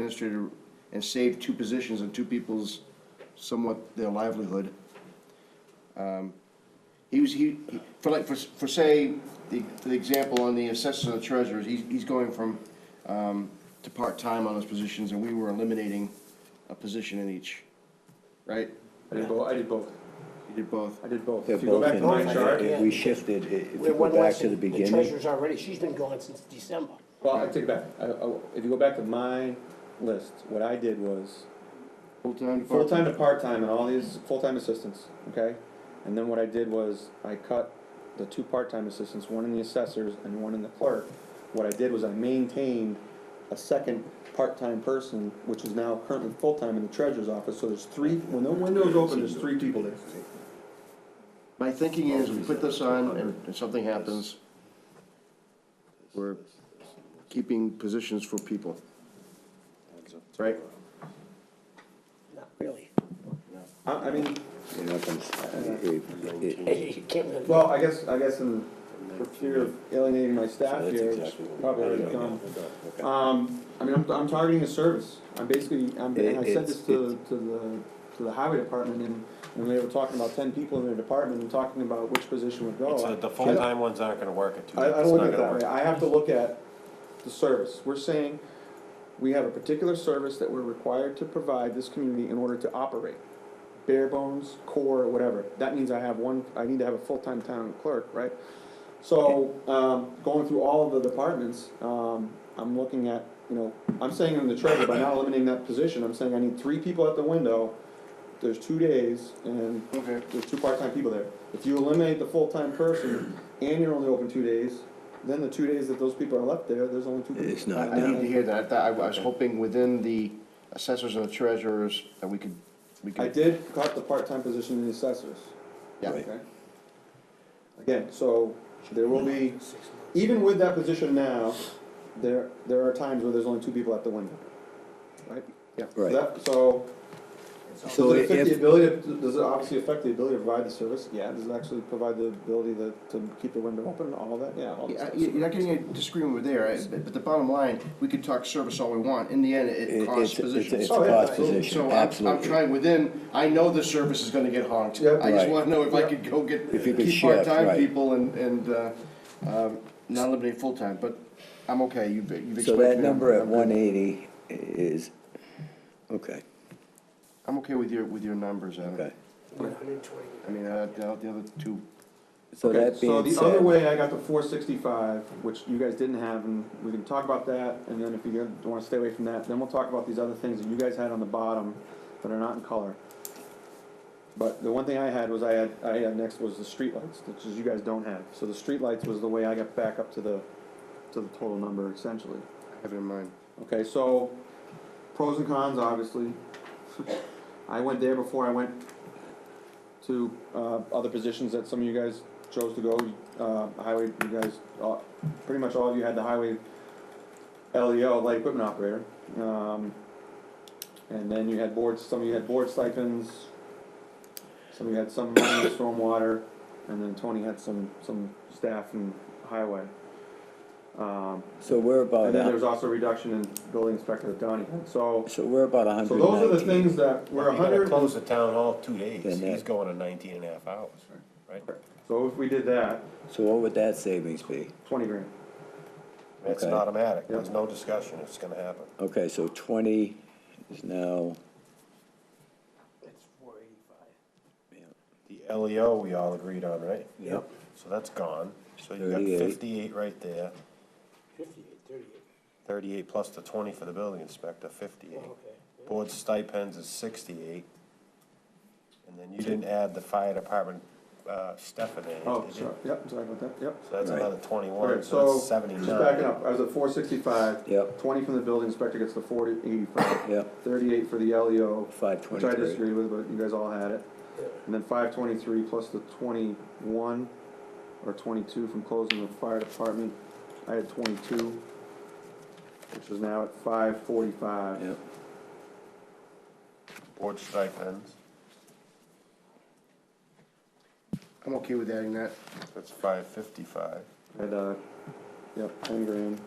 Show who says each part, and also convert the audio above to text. Speaker 1: administrator and saved two positions and two people's somewhat their livelihood. Um, He was, he, he- for like, for, s- for say, the, for the example on the assessors and the treasurers, he's, he's going from, um, to part-time on those positions, and we were eliminating a position in each, right?
Speaker 2: I did both, I did both,
Speaker 1: You did both.
Speaker 2: I did both.
Speaker 3: They're
Speaker 2: If you go
Speaker 3: both
Speaker 2: back to
Speaker 3: in
Speaker 2: my
Speaker 3: there.
Speaker 2: chart,
Speaker 3: If We shifted, i- if you
Speaker 4: We're
Speaker 3: go
Speaker 4: one
Speaker 3: back
Speaker 4: less,
Speaker 3: to the
Speaker 4: than the
Speaker 3: beginning,
Speaker 4: treasurer's already, she's been gone since December.
Speaker 2: well, I take it back, I, I, if you go back to my list, what I did was
Speaker 1: Full-time,
Speaker 2: full-time
Speaker 1: part-time?
Speaker 2: to part-time and all these full-time assistants, okay? And then what I did was I cut the two part-time assistants, one in the assessors and one in the clerk. What I did was I maintained a second part-time person, which is now currently full-time in the treasurer's office, so there's three, when the window's open, there's three people there.
Speaker 1: My thinking is, we put this on, and if something happens, we're keeping positions for people. Right?
Speaker 4: Not really.
Speaker 2: I, I mean,
Speaker 3: you know, comes- it- it-
Speaker 4: You can't really.
Speaker 2: well, I guess, I guess in, for fear of alienating my staff
Speaker 3: That's
Speaker 2: here,
Speaker 3: exactly
Speaker 2: it's
Speaker 3: what we're
Speaker 2: probably already
Speaker 3: doing.
Speaker 2: done.
Speaker 3: Okay.
Speaker 2: Um, I mean, I'm, I'm targeting a service. I'm basically, I'm, and I said this to, to the, to the highway department, and, and they were talking about ten people in their department, and talking about which position would go.
Speaker 5: So the full-time ones aren't gonna work at two,
Speaker 2: I, I
Speaker 5: it's
Speaker 2: don't look
Speaker 5: not
Speaker 2: at it that
Speaker 5: gonna
Speaker 2: way.
Speaker 5: work.
Speaker 2: I have to look at the service. We're saying we have a particular service that we're required to provide this community in order to operate. Bare bones, core, whatever. That means I have one, I need to have a full-time town clerk, right? So, um, going through all of the departments, um, I'm looking at, you know, I'm saying in the treasurer, by not eliminating that position, I'm saying I need three people at the window. There's two days and
Speaker 1: Okay.
Speaker 2: there's two part-time people there. If you eliminate the full-time person and you're only open two days, then the two days that those people are left there, there's only two people.
Speaker 3: It's not
Speaker 1: I need to
Speaker 3: now.
Speaker 1: hear that, I thought, I was hoping within the assessors and the treasurers, that we could, we
Speaker 2: I
Speaker 1: could,
Speaker 2: did cut the part-time position in the assessors,
Speaker 1: yeah.
Speaker 2: okay? Again, so there will be,
Speaker 4: Six months.
Speaker 2: even with that position now, there, there are times where there's only two people at the window, right? Yeah. So
Speaker 3: Right.
Speaker 2: that- So,
Speaker 3: So
Speaker 2: does it affect the
Speaker 3: if,
Speaker 2: ability, to- does it obviously affect the ability to provide the service? Yeah. Does it actually provide the ability to, to keep the window open, all of that? Yeah, all that
Speaker 1: Yeah,
Speaker 2: stuff.
Speaker 1: you- You're not getting a disagreement there, I- but but the bottom line, we could talk service all we want, in the end,
Speaker 3: it-
Speaker 1: it costs
Speaker 3: it's, it's
Speaker 1: positions.
Speaker 3: it's a
Speaker 2: Oh, yeah,
Speaker 3: cost
Speaker 2: absolutely.
Speaker 3: position,
Speaker 1: So I'm, I'm
Speaker 3: absolutely.
Speaker 1: trying within, I know the service is gonna get honked.
Speaker 2: Yeah.
Speaker 1: I just
Speaker 3: Right.
Speaker 1: wanna know if I
Speaker 2: Yeah.
Speaker 1: could go get,
Speaker 3: If you could
Speaker 1: keep
Speaker 3: shift,
Speaker 1: part-time
Speaker 3: right.
Speaker 1: people and, and, uh, um, not eliminate full-time, but I'm okay, you've, you've
Speaker 3: So
Speaker 1: explained. to me,
Speaker 3: that
Speaker 1: I'm-
Speaker 3: number at
Speaker 1: I'm good.
Speaker 3: one eighty is, okay,
Speaker 1: I'm okay with your, with your numbers, Adam.
Speaker 3: okay.
Speaker 4: One hundred and twenty.
Speaker 1: I mean, uh, the the other two,
Speaker 3: So
Speaker 2: Okay,
Speaker 3: that being
Speaker 2: So the other
Speaker 3: said,
Speaker 2: way, I got the four sixty-five, which you guys didn't have, and we can talk about that, and then if you don't wanna stay away from that, then we'll talk about these other things that you guys had on the bottom that are not in color. But the one thing I had was I had, I had next was the streetlights, which is you guys don't have, so the streetlights was the way I got back up to the, to the total number essentially.
Speaker 1: I have in mind.
Speaker 2: Okay, so pros and cons, obviously. I went there before I went to uh, other positions that some of you guys chose to go. Uh, highway, you guys, all, pretty much all of you had the highway LEO, light equipment operator. Um, and then you had boards, some of you had board stipends, some of you had some money in stormwater, and then Tony had some, some staff in highway. Um,
Speaker 3: so we're about,
Speaker 2: and then
Speaker 3: a-
Speaker 2: there's also a reduction in building inspector at Donnie. So,
Speaker 3: so we're about
Speaker 2: so
Speaker 3: hundred
Speaker 2: those are the
Speaker 3: and nineteen.
Speaker 2: things that were
Speaker 5: We're
Speaker 2: a
Speaker 5: gonna
Speaker 2: hundred,
Speaker 5: close the town hall two days,
Speaker 3: Then uh, that-
Speaker 5: he's going to nineteen and a half hours, right?
Speaker 2: so if we did that,
Speaker 3: So what would that savings be?
Speaker 2: twenty grand.
Speaker 5: It's an
Speaker 3: Okay.
Speaker 5: automatic, there's no discussion, it's gonna happen.
Speaker 3: Okay, so twenty is now,
Speaker 4: That's four eighty-five.
Speaker 5: The LEO we all agreed on, right?
Speaker 3: Yep.
Speaker 5: So that's gone, so you've got
Speaker 3: 38.
Speaker 5: fifty-eight right there,
Speaker 4: Fifty-eight, thirty-eight.
Speaker 5: thirty-eight plus the twenty for the building inspector,
Speaker 4: Oh,
Speaker 5: fifty-eight.
Speaker 4: okay.
Speaker 5: Board stipends is sixty-eight. And then you didn't add the fire department, uh, Stephanie.
Speaker 2: Oh, sorry, yep, sorry about that, yep.
Speaker 5: So that's
Speaker 3: Right.
Speaker 5: another twenty-one,
Speaker 2: Alright,
Speaker 5: so
Speaker 2: so,
Speaker 5: that's
Speaker 2: just
Speaker 5: seventy-nine.
Speaker 2: backing up, I was at four sixty-five.
Speaker 3: Yep.
Speaker 2: Twenty from the building inspector gets the forty, eighty-five.
Speaker 3: Yep.
Speaker 2: Thirty-eight for the LEO,
Speaker 3: five
Speaker 2: which I
Speaker 3: twenty-three.
Speaker 2: disagree with, but you guys all had it. And then five twenty-three plus the twenty-one or twenty-two from closing the fire department. I had twenty-two, which is now at five forty-five.
Speaker 3: Yep,
Speaker 5: Board stipends,
Speaker 1: I'm okay with adding that.
Speaker 5: that's five fifty-five.
Speaker 2: At, uh, yep, ten grand.